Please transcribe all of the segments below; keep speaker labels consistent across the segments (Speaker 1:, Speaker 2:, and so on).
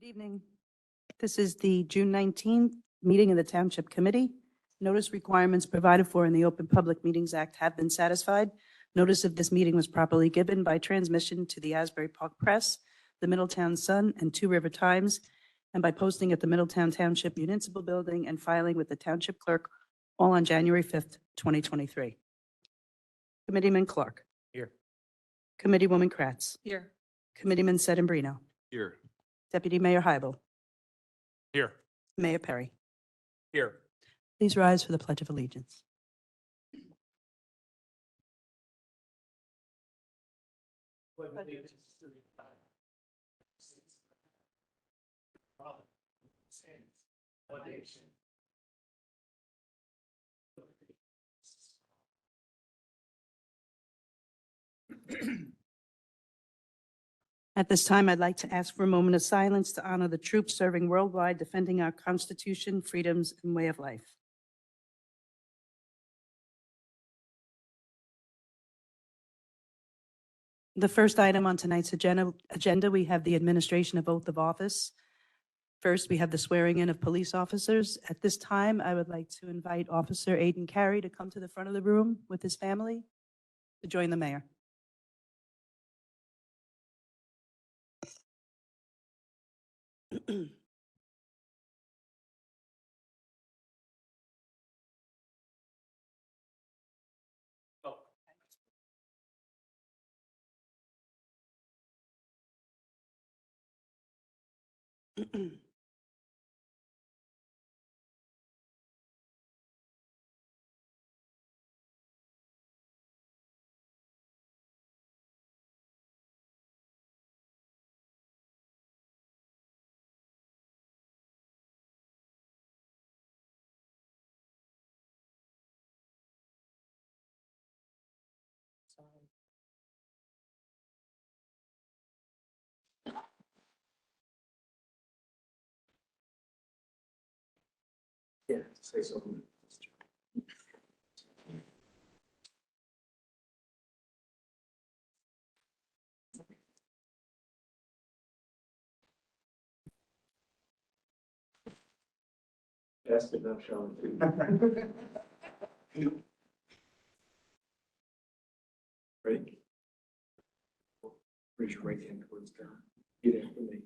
Speaker 1: Evening. This is the June 19th meeting of the Township Committee. Notice requirements provided for in the Open Public Meetings Act have been satisfied. Notice of this meeting was properly given by transmission to the Asbury Park Press, the Middletown Sun, and Two River Times, and by posting at the Middletown Township Municipal Building and filing with the Township Clerk, all on January 5th, 2023. Committeeman Clark.
Speaker 2: Here.
Speaker 1: Committeewoman Kratz.
Speaker 3: Here.
Speaker 1: Committeeman Sedambrino.
Speaker 2: Here.
Speaker 1: Deputy Mayor Hybel.
Speaker 2: Here.
Speaker 1: Mayor Perry.
Speaker 2: Here.
Speaker 1: Please rise for the Pledge of Allegiance. At this time, I'd like to ask for a moment of silence to honor the troops serving worldwide defending our Constitution, freedoms, and way of life. The first item on tonight's agenda, agenda, we have the administration of oath of office. First, we have the swearing in of police officers. At this time, I would like to invite Officer Aiden Carey to come to the front of the room with his family to join the mayor.
Speaker 4: Yeah, say something. Ask it, not show it. Ready? Raise your right hand towards God. Repeat after me.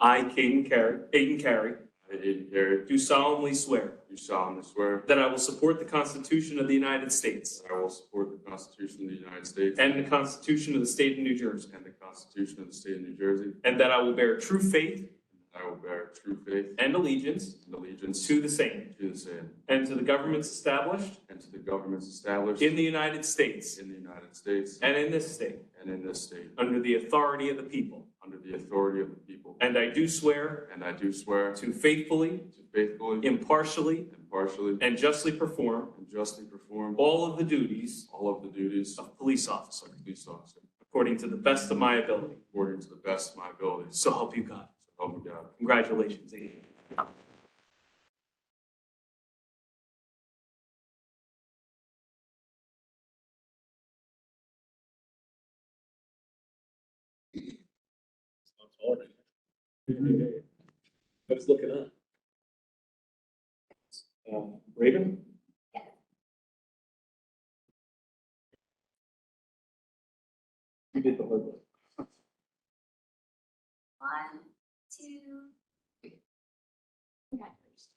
Speaker 5: I, Caden Carey, Caden Carey,
Speaker 6: I did hear,
Speaker 5: do solemnly swear
Speaker 6: do solemnly swear
Speaker 5: that I will support the Constitution of the United States
Speaker 6: that I will support the Constitution of the United States
Speaker 5: and the Constitution of the State of New Jersey,
Speaker 6: and the Constitution of the State of New Jersey,
Speaker 5: and that I will bear true faith
Speaker 6: that I will bear true faith
Speaker 5: and allegiance
Speaker 6: and allegiance
Speaker 5: to the same
Speaker 6: to the same,
Speaker 5: and to the governments established
Speaker 6: and to the governments established
Speaker 5: in the United States
Speaker 6: in the United States
Speaker 5: and in this state
Speaker 6: and in this state,
Speaker 5: under the authority of the people.
Speaker 6: under the authority of the people.
Speaker 5: And I do swear
Speaker 6: And I do swear to
Speaker 5: to faithfully,
Speaker 6: faithfully,
Speaker 5: impartially,
Speaker 6: impartially,
Speaker 5: and justly perform
Speaker 6: and justly perform
Speaker 5: all of the duties
Speaker 6: all of the duties of
Speaker 5: of police officer
Speaker 6: police officer
Speaker 5: according to the best of my ability.
Speaker 6: according to the best of my abilities.
Speaker 5: So help you God.
Speaker 6: So help me God.
Speaker 5: Congratulations, Aiden.
Speaker 4: I was looking up. Um, Raven? You did the hard one.
Speaker 7: One, two, three. Congratulations.